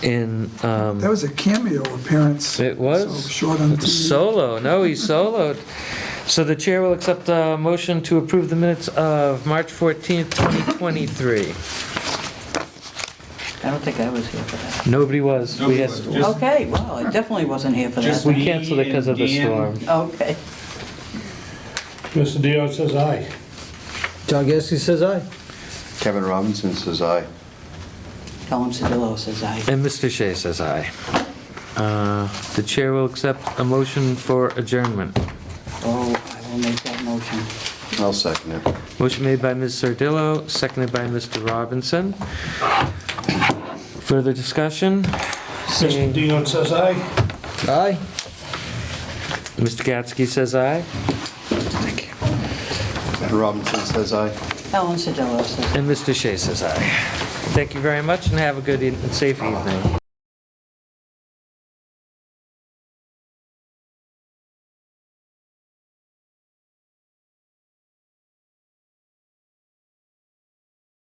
in, um, That was a cameo appearance. It was. So Short on TV. Solo, no, he soloed. So the chair will accept a motion to approve the minutes of March 14th, 2023. I don't think I was here for that. Nobody was. We had, Nobody was. Just- Okay, well, I definitely wasn't here for Just- that. we canceled it because of the Me and Dan. storm. Okay. Mr. Dion says aye. John Gasky says aye. Kevin Robinson says aye. Colin Sedillo says aye. And Mr. Shea says aye. Uh, The chair will accept a motion for adjournment. Oh, I will make that motion. I'll second it. Motion made by Ms. Sardillo, seconded by Mr. Robinson. Further discussion? Mr. Seeing, Dion says aye. Aye. Mr. Gatsky says aye, Kevin Robinson says aye. Colin Sedillo says aye. and Mr. Shea says aye. Thank you very much, and have a good e- and safe evening.